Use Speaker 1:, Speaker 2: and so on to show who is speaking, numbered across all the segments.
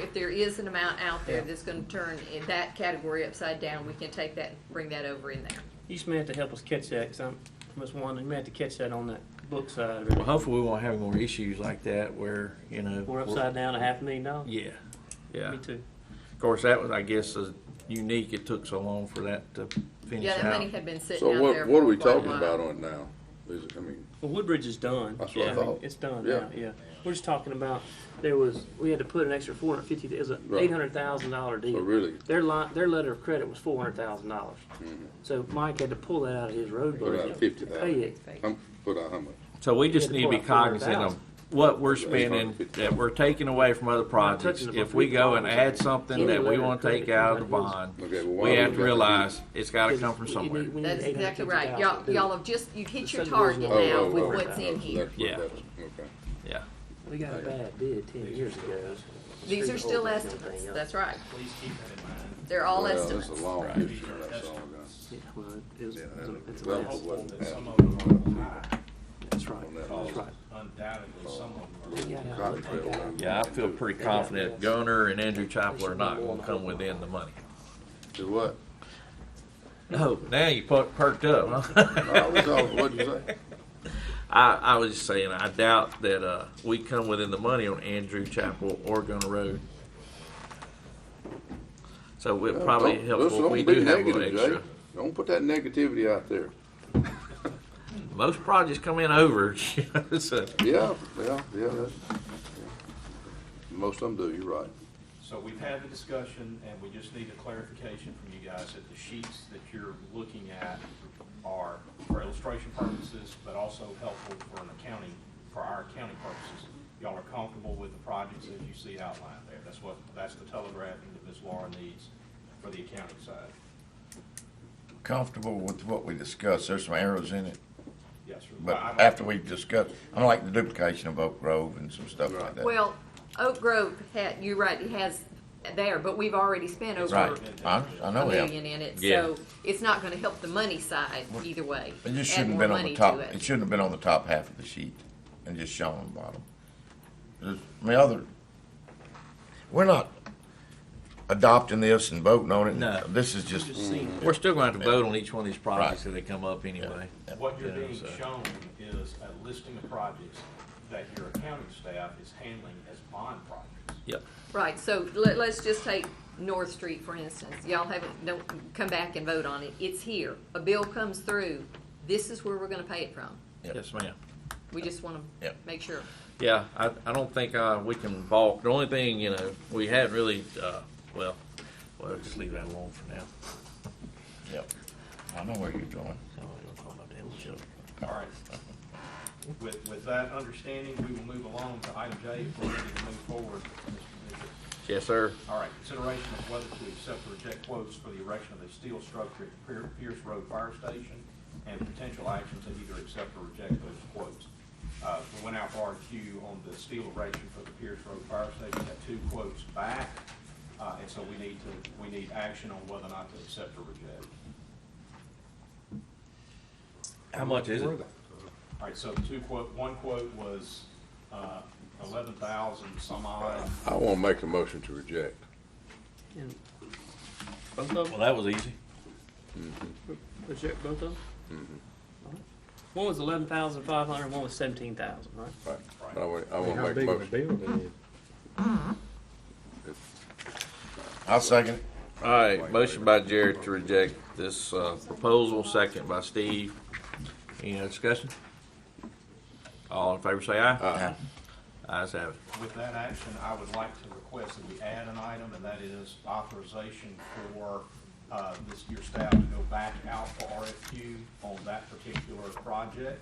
Speaker 1: if there is an amount out there that's gonna turn in that category upside down, we can take that, and bring that over in there.
Speaker 2: You just may have to help us catch that, 'cause I'm, Ms. Wanda, you may have to catch that on that book side of
Speaker 3: Well,
Speaker 2: it.
Speaker 3: hopefully we won't have more issues like that where, you know.
Speaker 2: We're upside down a half a million dollars.
Speaker 3: Yeah, yeah.
Speaker 2: Me
Speaker 3: Of
Speaker 2: too.
Speaker 3: course, that was, I guess, is unique. It took so long for that to finish
Speaker 1: Yeah, that money
Speaker 3: out.
Speaker 1: had been sitting
Speaker 4: So
Speaker 1: out there.
Speaker 4: what, what are
Speaker 1: for
Speaker 4: we
Speaker 1: quite a
Speaker 4: talking
Speaker 1: while.
Speaker 4: about on it now? Is it, I mean,
Speaker 2: Well, Woodbridge is done.
Speaker 4: That's what I
Speaker 2: Yeah, mean,
Speaker 4: thought.
Speaker 2: It's done
Speaker 4: Yeah.
Speaker 2: now, yeah. We're just talking about, there was, we had to put an extra four hundred fifty, it was an
Speaker 4: Right.
Speaker 2: eight hundred thousand dollar
Speaker 4: so
Speaker 2: deal.
Speaker 4: really, Mm-hmm.
Speaker 2: Their line, their letter of credit was four hundred thousand dollars. So Mike had to pull that out of his road
Speaker 4: put out
Speaker 2: budget.
Speaker 4: fifty
Speaker 2: Pay
Speaker 4: thousand.
Speaker 2: it.
Speaker 4: I'm, put out how much?
Speaker 3: So we just
Speaker 2: Yeah,
Speaker 3: need to be
Speaker 2: four- four hundred
Speaker 3: cognizant of
Speaker 2: thousand.
Speaker 3: what we're spending, that we're taking away from other projects.
Speaker 2: touching the
Speaker 3: If we go and
Speaker 2: bond.
Speaker 3: add something that we want to take out of the bond,
Speaker 4: Okay, well, why
Speaker 3: we
Speaker 4: would
Speaker 3: have
Speaker 4: that
Speaker 3: to
Speaker 4: be-
Speaker 3: realize it's got to come from
Speaker 2: You
Speaker 3: somewhere.
Speaker 2: need- we need
Speaker 1: That's exactly right.
Speaker 2: $850,000
Speaker 1: Y'all,
Speaker 2: to do
Speaker 1: y'all
Speaker 2: it.
Speaker 1: have just, you've hit
Speaker 2: The
Speaker 1: your
Speaker 2: subdivision
Speaker 1: target
Speaker 4: law.
Speaker 1: now
Speaker 4: Oh, oh,
Speaker 1: with
Speaker 4: oh.
Speaker 1: what's in here.
Speaker 4: That's what
Speaker 3: Yeah.
Speaker 4: that was. Okay.
Speaker 3: Yeah.
Speaker 2: We got a bad bid ten years ago.
Speaker 1: These
Speaker 2: Screwed
Speaker 1: are
Speaker 2: the whole
Speaker 1: still
Speaker 2: thing up.
Speaker 1: estimates, that's right.
Speaker 5: Please keep that in mind.
Speaker 1: They're all
Speaker 4: Well,
Speaker 1: estimates.
Speaker 4: That's a long
Speaker 3: Right.
Speaker 4: picture, that's all I got.
Speaker 2: Yeah, well, it was,
Speaker 4: Yeah,
Speaker 2: it's
Speaker 4: that-
Speaker 2: a- it's a
Speaker 4: that
Speaker 2: mess.
Speaker 4: was what-
Speaker 5: That some of them are high,
Speaker 2: That's right,
Speaker 4: that
Speaker 2: that's
Speaker 4: also.
Speaker 2: right.
Speaker 5: undoubtedly, some of them are.
Speaker 2: We got out
Speaker 4: Cotton
Speaker 2: of it.
Speaker 4: trail road.
Speaker 3: Yeah, I feel pretty confident Gunner and Andrew Chapel are not going to come within the money.
Speaker 4: Do what?
Speaker 3: Oh, now you per- perked up, huh?
Speaker 4: No, it's all- what'd you say?
Speaker 3: I, I was just saying, I doubt that uh, we come within the money on Andrew Chapel or Gunner Road. So it probably
Speaker 4: Don't-
Speaker 3: helps
Speaker 4: listen,
Speaker 3: if we
Speaker 4: don't be
Speaker 3: do have a little
Speaker 4: negative, Jay.
Speaker 3: extra.
Speaker 4: Don't put that negativity out there.
Speaker 3: Most projects come in over, you know, so.
Speaker 4: Yeah, yeah, yeah, that's, yeah. Most of them do, you're right.
Speaker 5: So we've had the discussion, and we just need a clarification from you guys that the sheets that you're looking at are for illustration purposes, but also helpful for an accounting, for our accounting purposes. Y'all are comfortable with the projects that you see outlined there? That's what, that's the telegraphing that Ms. Laura needs for the accounting side.
Speaker 6: comfortable with what we discussed. There's some arrows in it,
Speaker 5: Yes, sir.
Speaker 6: but
Speaker 5: I- I-
Speaker 6: after we've discussed, I don't like the duplication of Oak Grove and some stuff like that.
Speaker 1: Well, Oak Grove had, you're right, it has there, but we've already spent over
Speaker 6: Right, Oh, I, I
Speaker 1: a
Speaker 6: know
Speaker 1: million
Speaker 6: that.
Speaker 1: in it,
Speaker 3: Yeah.
Speaker 1: so it's not gonna help the money side either way.
Speaker 6: It just
Speaker 1: Add
Speaker 6: shouldn't have
Speaker 1: more
Speaker 6: been on
Speaker 1: money
Speaker 6: the
Speaker 1: to
Speaker 6: top,
Speaker 1: it.
Speaker 6: it shouldn't have been on the top half of the sheet and just shown on the bottom. There's- I mean, other, we're not adopting this and voting on it.
Speaker 3: No.
Speaker 6: This is just,
Speaker 3: We're still going to have to vote on each one of these projects that they come up anyway.
Speaker 5: What you're being
Speaker 3: Yeah, so-
Speaker 5: shown is a listing of projects that your accounting staff is handling as bond projects.
Speaker 3: Yep.
Speaker 1: Right, so let, let's just take North Street, for instance. Y'all haven't, don't come back and vote on it. It's here. A bill comes through. This is where we're gonna pay it from.
Speaker 6: Yep.
Speaker 3: Yes, ma'am.
Speaker 1: We just wanna
Speaker 6: Yep.
Speaker 1: make sure.
Speaker 3: Yeah, I, I don't think uh, we can balk. The only thing, you know, we haven't really, uh, well, well, just leave that alone for now.
Speaker 6: yep, I know where you're going.
Speaker 5: All right. With, with that understanding, we will move along to item J, if we're ready to move forward. Mr. Bishop.
Speaker 3: Yes, sir.
Speaker 5: All right, consideration of whether to accept or reject quotes for the erection of a steel structure at Pier- Pierce Road Fire Station and potential actions to either accept or reject those quotes. Uh, we went out for RQ on the steel erection for the Pierce Road Fire Station, got two quotes back. Uh, and so we need to, we need action on whether or not to accept or reject.
Speaker 3: How much is it?
Speaker 5: All right, so two quote, one quote was, uh, eleven thousand some odd.
Speaker 4: I wanna make a motion to reject.
Speaker 2: And Both of
Speaker 3: Well,
Speaker 2: them,
Speaker 3: that was easy.
Speaker 2: reject both of them? All right. One was eleven thousand five hundred, one was seventeen thousand, right?
Speaker 4: I wanna, I wanna make a motion.
Speaker 6: I'll second it.
Speaker 3: All right, motion by Jared to reject this uh, proposal, second by Steve. Any other discussion? All in favor, say aye.
Speaker 6: Aye.
Speaker 3: Ayes have it.
Speaker 5: With that action, I would like to request that we add an item, and that is authorization for uh, this, your staff to go back out for RFQ on that particular project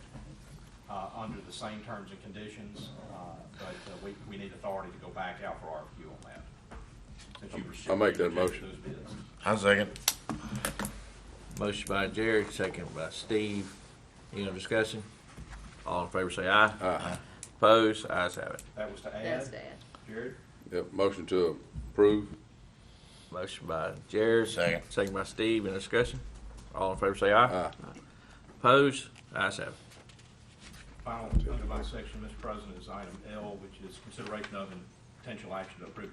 Speaker 5: uh, under the same terms and conditions, uh, but uh, we, we need authority to go back out for RFQ on that. since you
Speaker 4: I'll make that
Speaker 5: rejected
Speaker 4: motion.
Speaker 5: those bids.
Speaker 6: I'll second it.
Speaker 3: Motion by Jared, second by Steve. Any other discussion? All in favor, say aye.
Speaker 4: Aye.
Speaker 3: Opposed, ayes have it.
Speaker 5: That was to add?
Speaker 1: That's bad.
Speaker 5: Jared?
Speaker 4: Yep, motion to approve.
Speaker 3: Motion by Jared.
Speaker 6: Second.
Speaker 3: Second by Steve. Any discussion? All in favor, say aye. Opposed, ayes have it.
Speaker 5: Final, under my section, Mr. President, is item L, which is consideration of and potential action to approve